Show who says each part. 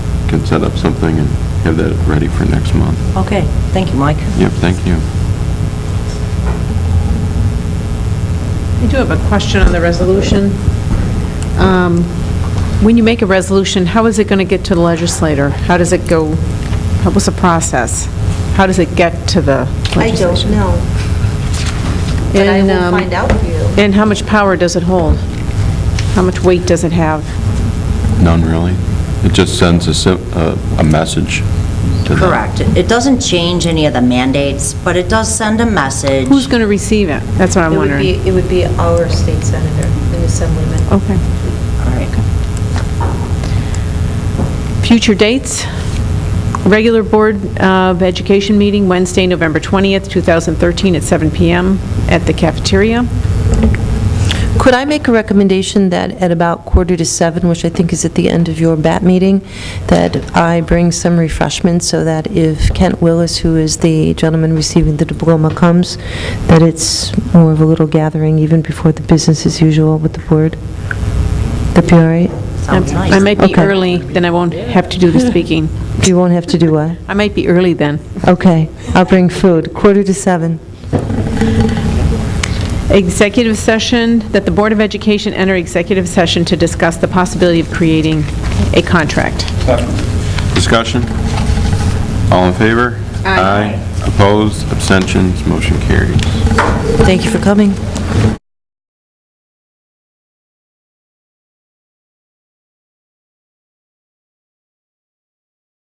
Speaker 1: can set up something and have that ready for next month.
Speaker 2: Okay, thank you, Mike.
Speaker 1: Yep, thank you.
Speaker 3: I do have a question on the resolution. Um, When you make a resolution, how is it going to get to the legislator? How does it go, how- what's the process? How does it get to the
Speaker 4: I
Speaker 3: legislature?
Speaker 4: don't know, but I
Speaker 3: And,
Speaker 4: will
Speaker 3: um,
Speaker 4: find out for you.
Speaker 3: And how much power does it hold? How much weight does it have?
Speaker 1: None, really? It just sends a, si- a a message to them.
Speaker 2: Correct. It doesn't change any of the mandates, but it does send a message.
Speaker 3: Who's going to receive it? That's what I'm
Speaker 4: It would be,
Speaker 3: wondering.
Speaker 4: it would be our state senator, an assemblyman.
Speaker 5: Oh,
Speaker 3: Okay.
Speaker 2: All right.
Speaker 3: Future dates, regular Board of Education meeting Wednesday, November 20th, 2013, at 7 PM at the cafeteria.
Speaker 5: Could I make a recommendation that at about quarter to seven, which I think is at the end of your BAT meeting, that I bring some refreshments so that if Kent Willis, who is the gentleman receiving the diploma, comes, that it's more of a little gathering even before the business as usual with the board? That'd be all right?
Speaker 2: Sounds
Speaker 3: I
Speaker 2: nice.
Speaker 3: might be
Speaker 5: Okay.
Speaker 3: early, then I won't have to do the speaking.
Speaker 5: You won't have to do what?
Speaker 3: I might be early then.
Speaker 5: Okay, I'll bring food, quarter to seven.
Speaker 3: Executive session, that the Board of Education enter executive session to discuss the possibility of creating a contract.
Speaker 1: Discussion? All in favor? Aye. Opposed, abstentions, motion carries.
Speaker 5: Thank you for coming.